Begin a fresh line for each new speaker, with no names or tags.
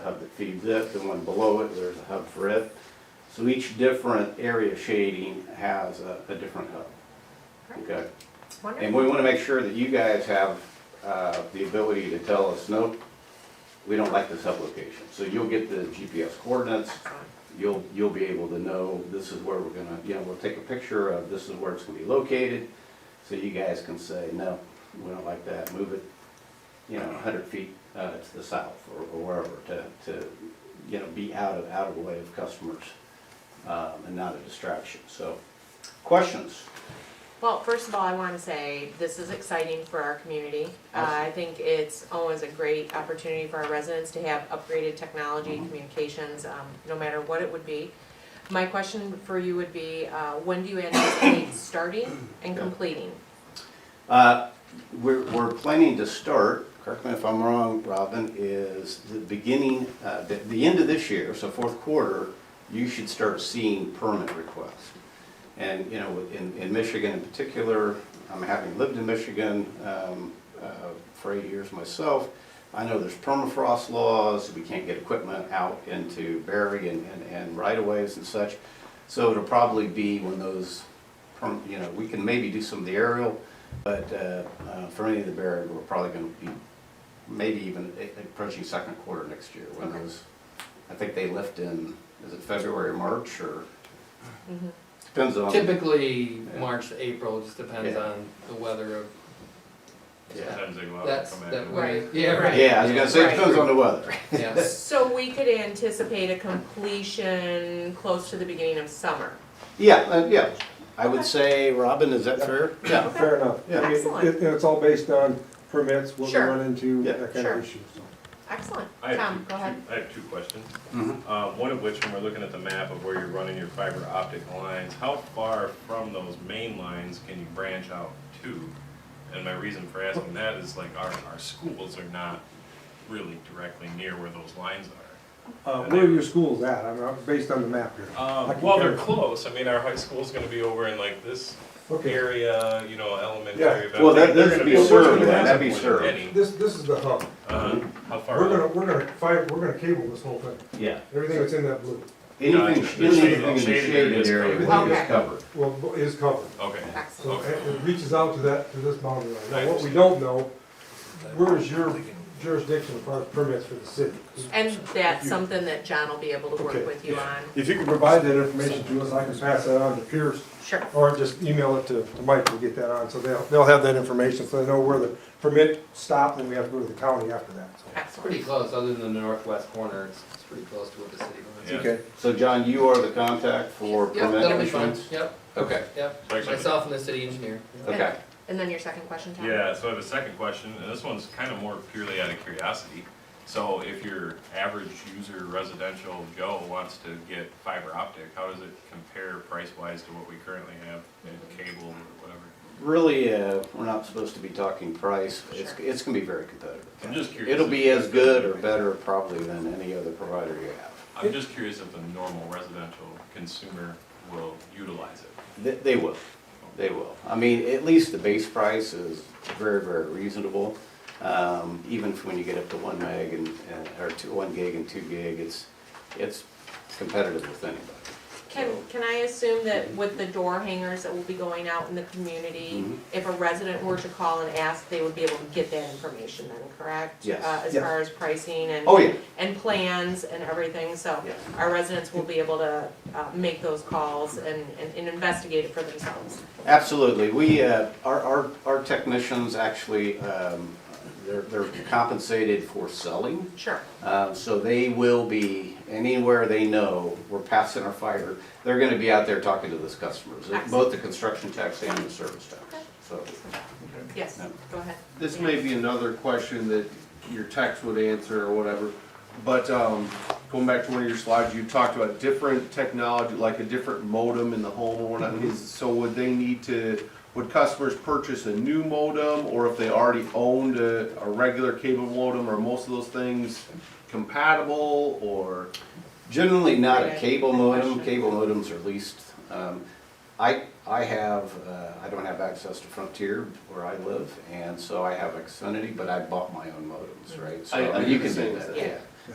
that feeds it, the one below it, there's a hub for it. So each different area shading has a, a different hub,
Great,
okay? And
wonderful.
we wanna make sure that you guys have, uh, the ability to tell us, no, we don't like this hub location. So you'll get the GPS coordinates, you'll, you'll be able to know, this is where we're gonna, you know, we'll take a picture of, this is where it's gonna be located. So you guys can say, no, we don't like that, move it, you know, hundred feet, uh, to the south or, or wherever to, to, you know, be out of, out of the way of customers, um, and not a distraction. So, questions?
Well, first of all, I want to say this is exciting for our community. Uh, I think it's always a great opportunity for our residents to have upgraded technology,
Mm-hmm.
communications, um, no matter what it would be. My question for you would be, uh, when do you anticipate starting and
Yeah.
completing?
Uh, We're, we're planning to start, correct me if I'm wrong, Robin, is the beginning, uh, the, the end of this year, so fourth quarter, you should start seeing permit requests. And, you know, in, in Michigan in particular, um, having lived in Michigan um, uh, for eight years myself, I know there's permafrost laws, we can't get equipment out into Berry and, and- and right-of-ways and such. So it'll probably be when those, perm- you know, we can maybe do some of the aerial, but uh, uh, for any of the Berry, we're probably going to be maybe even a- approaching second quarter next year when
Okay.
those, I think they lift in, is it February or March or? Mm-hmm. Depends on.
Typically,
Yeah.
March to April, it just depends
Yeah.
on the weather of
Yeah.
Sometimes they go out and
that's
come
that
in.
way.
Right.
Yeah, right.
Yeah, I was gonna say, it depends on the weather.
Yeah.
So we could anticipate a completion close to the beginning of summer.
Yeah, uh, yeah, I would say, Robin, is that fair? Yeah.
Fair enough.
Yeah.
I mean,
Excellent.
it- It's all based on permits, what we
Sure.
run into,
Yeah.
that kind
Sure.
of issue. so.
Excellent.
I have
Tom,
two-
go ahead.
two- I have two questions.
Mhm.
Uh, One of which, when we're looking at the map of where you're running your fiber optic lines, how far from those main lines can you branch out to? And my reason for asking that is like our, our schools are not really directly near where those lines are.
Uh, Where are your schools at? I'm, uh, based on the map here. I
Um,
can
Well, they're
compare.
close. I mean, our high school's gonna be over in like this
Okay.
area, you know,
Yeah.
elementary. but
Well, that-
they're
that'd
gonna
be
served,
at
that'd
some
be
point,
served.
any.
This, this is the hub.
Uh-huh. How far?
We're
out?
gonna, we're gonna, five, we're gonna cable this whole thing,
Yeah.
everything that's in that blue,
Anything,
Gotcha. The shaded-
anything in the
shaded
shaded
areas
area
covered.
is covered.
well, is covered.
Okay.
Excellent.
So it it reaches out to that, to this boundary line.
I
Now, what we don't know, where is your jurisdiction as far as permits for the city?
And that's something that John will be able to work
Okay.
with you on.
If you can provide that information to us, I can pass that on to Pierce,
Sure.
or just email it to to Mike to get that on, so they'll, they'll have that information, so they know where the permit stopped, and we have to go to the county after that, so.
It's pretty
Excellent.
close, other than the northwest corner, it's, it's pretty close to what the city limits.
Yeah.
Okay.
So John, you are the contact for
Yep,
permit
that'll be fine,
issuance?
yep,
Okay,
yep,
Actually-
myself and the city engineer.
okay.
And then your second question, Tom?
Yeah, so I have a second question, and this one's kind of more purely out of curiosity. So if your average user residential Joe wants to get fiber optic, how does it compare price-wise to what we currently have in cable or whatever?
Really, uh, we're not supposed to be talking price. It's,
Sure.
it's gonna be very competitive.
I'm just curious.
It'll
if-
be as good or better probably than any other provider you have.
I'm just curious if the normal residential consumer will utilize it.
They, they will, they will. I mean, at least the base price is very, very reasonable. Um, even when you get up to one meg and, and, or two, one gig and two gig, it's, it's competitive with anybody.
Can, can I assume that with the door hangers that will be going out in the community,
Mhm.
if a resident were to call and ask, they would be able to get that information then, correct?
Yes.
Uh, As
Yes.
far as pricing and.
Oh, yeah,
And plans and everything, so
Yes.
our residents will be able to uh, make those calls and, and- and investigate it for themselves.
absolutely. We, uh, our, our, our technicians actually, um, they're, they're compensated for selling.
Sure.
Uh, So they will be, anywhere they know, we're passing our fire, they're gonna be out there talking to those customers, both the construction tax and the service tax, so.
Yes,
No.
go ahead.
This may be another question that your text would answer or whatever, but um, going back to one of your slides, you talked about different technology, like a different modem in the home or whatnot.
Mm-hmm.
Is- So would they need to, would customers purchase a new modem? Or if they already owned a, a regular cable modem, are most of those things compatible or?
Generally not a
Right.
cable
Good
modem,
question.
cable modems are leased. Um, I, I have, uh, I don't have access to Frontier where I live, and so I have Xfinity, but I bought my own modems, right? So
I- I
mean,
do
you
the
can do
same
that,
thing.
yeah.